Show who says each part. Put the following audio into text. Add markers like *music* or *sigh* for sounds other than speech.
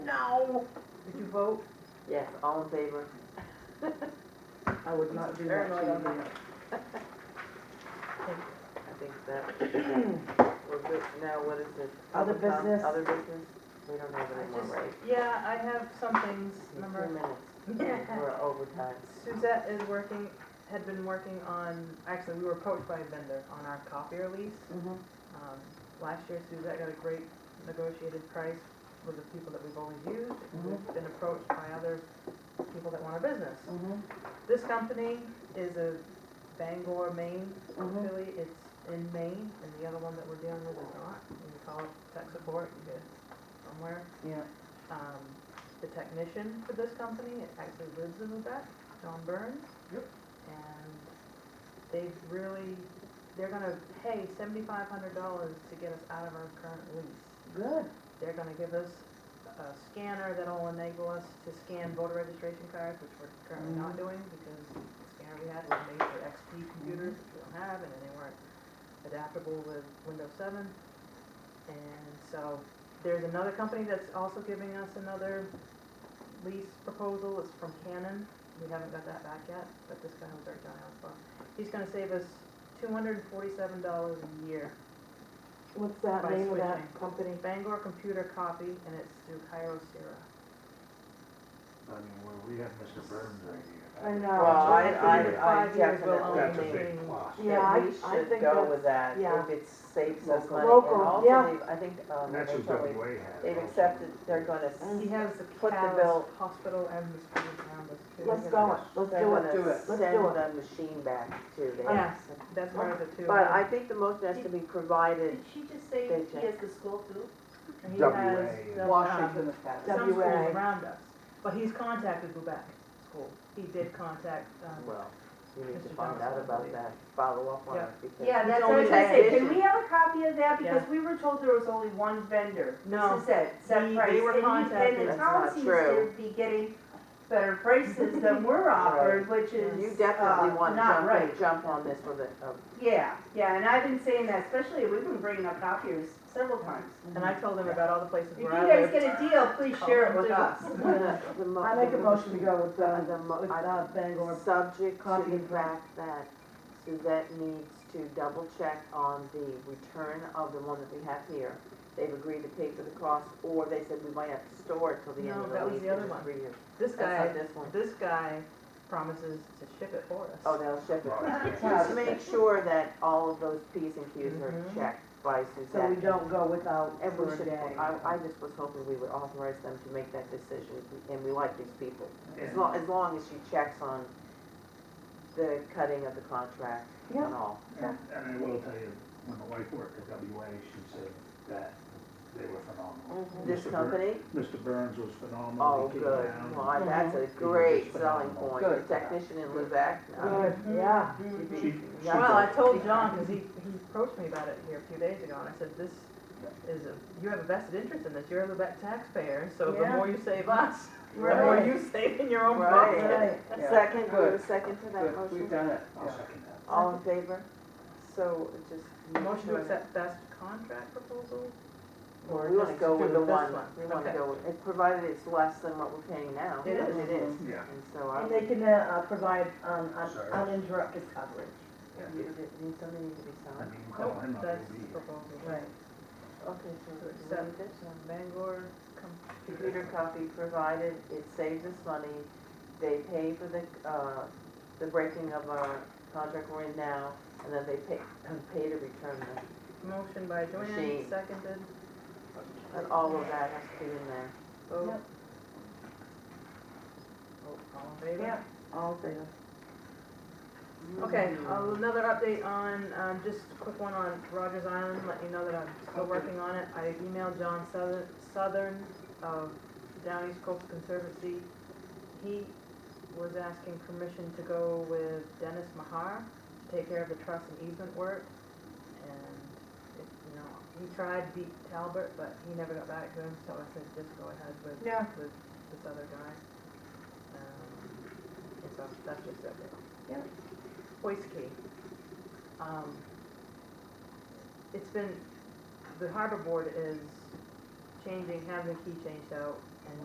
Speaker 1: No.
Speaker 2: Did you vote?
Speaker 3: Yes, all in favor?
Speaker 2: I would not do that
Speaker 3: Paranoid on
Speaker 2: to you.
Speaker 3: I think
Speaker 4: *clears throat*
Speaker 3: that, we're good. Now, what is it?
Speaker 2: Other
Speaker 3: Public com-
Speaker 2: business?
Speaker 3: Other business? We don't have
Speaker 2: I
Speaker 3: any more,
Speaker 2: just-
Speaker 3: right?
Speaker 4: Yeah, I have some things,
Speaker 3: Two
Speaker 4: remember
Speaker 3: minutes.
Speaker 4: *laughs*
Speaker 3: We're overtime.
Speaker 4: Suzette is working, had been working on, actually, we were approached by a vendor on our copier lease.
Speaker 2: Mm-hmm,
Speaker 4: Um, Last year Suzette got a great negotiated price with the people that we've always used. and We've been approached by other people that want our business. This company is a Bangor, Maine
Speaker 2: mm-hmm.
Speaker 3: Mhm.
Speaker 4: Really, it's in Maine, and the other one that we're dealing with is not. When you call tech support, you get somewhere.
Speaker 2: Yeah.
Speaker 4: Um, the technician for this company actually lives in Lubec, John Burns.
Speaker 2: Yep.
Speaker 4: And they've really, they're gonna pay seventy-five hundred dollars to get us out of our current lease.
Speaker 2: Good.
Speaker 4: They're gonna give us a scanner that'll enable us to scan voter registration cards, which we're currently not doing because the scanner we had was made for XP computers, which we don't have, and they weren't adaptable with Windows seven. And so, there's another company that's also giving us another lease proposal, it's from Canon, we haven't got that back yet, but this guy was our guy on the phone. He's gonna save us two hundred and forty-seven dollars a year
Speaker 3: What's
Speaker 4: By
Speaker 3: that name of
Speaker 4: switching.
Speaker 3: that company?
Speaker 4: Bangor Computer Copy, and it's through Cairo Sierra.
Speaker 5: I mean, where we have Mr. Burns right here.
Speaker 2: I
Speaker 3: Well,
Speaker 2: know.
Speaker 3: Oh, I,
Speaker 4: Three to
Speaker 3: I, I
Speaker 4: five years will
Speaker 3: definitely
Speaker 5: That's a
Speaker 4: only
Speaker 5: big
Speaker 4: mean-
Speaker 5: plus.
Speaker 3: think
Speaker 2: Yeah, I-
Speaker 3: we
Speaker 2: I
Speaker 3: should
Speaker 2: think
Speaker 3: go
Speaker 2: that's-
Speaker 3: with that,
Speaker 2: yeah.
Speaker 3: if it saves us money.
Speaker 2: Local,
Speaker 3: And also
Speaker 2: yeah.
Speaker 3: they've- I think, um,
Speaker 5: And that's
Speaker 3: they've
Speaker 5: what
Speaker 3: probably-
Speaker 5: WA has.
Speaker 3: they've
Speaker 5: also.
Speaker 3: accepted, they're gonna,
Speaker 2: Mm.
Speaker 4: He
Speaker 3: s-
Speaker 4: has the
Speaker 3: Put the bill-
Speaker 4: Cal's Hospital and the schools around us too.
Speaker 2: Let's go it, let's
Speaker 3: they're
Speaker 2: do it.
Speaker 3: gonna
Speaker 2: Let's do it.
Speaker 3: send the machine back to them.
Speaker 4: Yes, that's part of the two.
Speaker 3: But I think the motion has to be provided,
Speaker 1: Did she just say
Speaker 3: They
Speaker 1: he has the school too? Um,
Speaker 4: He
Speaker 5: WA.
Speaker 4: has the, uh,
Speaker 2: Washington.
Speaker 4: Some schools
Speaker 2: WA.
Speaker 4: around us, but he's contacted Lubec School. He did contact, um,
Speaker 3: well, we need to
Speaker 4: Mr.
Speaker 3: find
Speaker 4: Johnson, I
Speaker 3: out about
Speaker 4: believe.
Speaker 3: that, follow up on
Speaker 4: Yeah.
Speaker 3: it, because.
Speaker 1: Yeah, that's what I
Speaker 4: only
Speaker 1: was gonna say, can
Speaker 3: that
Speaker 1: we have a copy of that, because
Speaker 4: Yeah.
Speaker 1: we were told there was only one vendor.
Speaker 4: No.
Speaker 1: This is it,
Speaker 4: We-
Speaker 1: set
Speaker 4: they
Speaker 1: price,
Speaker 4: were
Speaker 1: and,
Speaker 4: contacted.
Speaker 1: and the
Speaker 3: That's
Speaker 1: town
Speaker 3: not
Speaker 1: seems
Speaker 3: true.
Speaker 1: to be getting better prices than we're offered, which is,
Speaker 3: You
Speaker 1: uh,
Speaker 3: definitely want to
Speaker 1: not right.
Speaker 3: jump, jump on this uh, with a, a
Speaker 1: Yeah, yeah, and I've been saying that, especially, we've been bringing up copiers several times.
Speaker 4: and I told him about all the places
Speaker 1: If you
Speaker 4: where I
Speaker 1: guys
Speaker 4: live.
Speaker 1: get a deal, please share it with us.
Speaker 2: *laughs* I make a motion to go with,
Speaker 3: Uh,
Speaker 2: uh,
Speaker 3: the mo-
Speaker 2: with,
Speaker 3: I-
Speaker 2: uh,
Speaker 3: *laughs*
Speaker 2: Bangor.
Speaker 3: Subject to
Speaker 2: copy
Speaker 3: the
Speaker 2: and
Speaker 3: fact that Suzette needs to double check on the return of the one that we have here. They've agreed to pay for the cost, or they said we might have to store it till the end
Speaker 4: No,
Speaker 3: of
Speaker 4: that
Speaker 3: the
Speaker 4: was
Speaker 3: lease,
Speaker 4: the other
Speaker 3: which
Speaker 4: one.
Speaker 3: is three years.
Speaker 4: This guy,
Speaker 3: That's not this one.
Speaker 4: this guy promises to ship it for us.
Speaker 3: Oh, they'll ship
Speaker 5: Oh,
Speaker 3: it.
Speaker 5: yeah.
Speaker 2: Yeah.
Speaker 3: Just to make sure that all of those Ps and Qs are
Speaker 4: Mhm.
Speaker 3: checked by
Speaker 2: Mm-hmm. So we
Speaker 3: Suzette.
Speaker 2: don't go without
Speaker 3: And we
Speaker 2: for a
Speaker 3: should,
Speaker 2: day.
Speaker 3: I, I just was hoping we would authorize them to make that decision, and we like these people. As
Speaker 5: And-
Speaker 3: long, as long as she checks on the cutting of the contract and all.
Speaker 5: And and I will tell you, when my wife worked at WA, she said that they were phenomenal.
Speaker 3: This
Speaker 5: Mr. Bur-
Speaker 3: company,
Speaker 5: Mr. Burns was phenomenal.
Speaker 3: oh,
Speaker 5: He came
Speaker 3: good,
Speaker 5: down.
Speaker 3: well, I- that's a
Speaker 5: Mhm.
Speaker 3: great selling point, the
Speaker 2: Good.
Speaker 3: technician in Lubec. uh,
Speaker 2: Good, yeah.
Speaker 3: she'd be-
Speaker 5: She- she
Speaker 3: yeah.
Speaker 4: Well, I told John, because he, he approached me about it here a few days ago, and I said, this is, a you have a vested interest in this, you're a Lubec taxpayer, so the
Speaker 2: Yeah.
Speaker 4: more you save us, the more
Speaker 2: Right.
Speaker 4: you save in your own
Speaker 3: Right.
Speaker 4: pocket.
Speaker 2: Right.
Speaker 3: Second, we have a
Speaker 2: Good.
Speaker 3: second to that
Speaker 2: Good, we've
Speaker 3: motion,
Speaker 2: done it.
Speaker 5: I'll second that.
Speaker 3: all in favor? So it just.
Speaker 4: Motion to accept best contract proposal?
Speaker 3: Well,
Speaker 4: Or
Speaker 3: We wanna
Speaker 4: just
Speaker 3: go with
Speaker 4: do
Speaker 3: the
Speaker 4: this
Speaker 3: one, we wanna
Speaker 4: Okay.
Speaker 3: go with, it- provided it's less than what we're paying now.
Speaker 4: It is,
Speaker 2: it
Speaker 4: is.
Speaker 5: Yeah.
Speaker 3: And so I,
Speaker 2: And they can, uh, provide, um, un-
Speaker 5: Sorry.
Speaker 2: uninterrupted coverage.
Speaker 3: you, it needs something to be
Speaker 5: I
Speaker 3: signed.
Speaker 5: mean, you call
Speaker 4: Nope,
Speaker 5: him up,
Speaker 4: that's
Speaker 5: he'll be
Speaker 4: the
Speaker 5: here.
Speaker 4: proposal.
Speaker 2: Right.
Speaker 3: Okay, so
Speaker 4: To
Speaker 3: we
Speaker 4: accept,
Speaker 3: need this?
Speaker 4: um, Bangor com-
Speaker 3: computer copy provided, it saves us money, they pay for the, uh, the breaking of our contract we're in now, and then they pay, pay to return them.
Speaker 4: motion by Joanne,
Speaker 3: Machine.
Speaker 4: seconded,
Speaker 3: And all of that has to be in there.
Speaker 4: vote.
Speaker 2: Yep.
Speaker 4: Vote, all in favor?
Speaker 2: Yeah.
Speaker 3: All things.
Speaker 4: Okay, uh, another update on, um, just a quick one on Rogers Island, let you know that I'm still working on it. I emailed John Southern, Southern of Down East Coast Conservancy. He was asking permission to go with Dennis Mahar to take care of the truss and easement work. And, it- you know, he tried beat Talbert, but he never got back to him, so I said, just go ahead with,
Speaker 2: Yeah.
Speaker 4: with this other guy. Um, And so that's just it.
Speaker 2: Yep.
Speaker 4: Hoist key. Um, It's been, the harbor board is changing, having the key changed out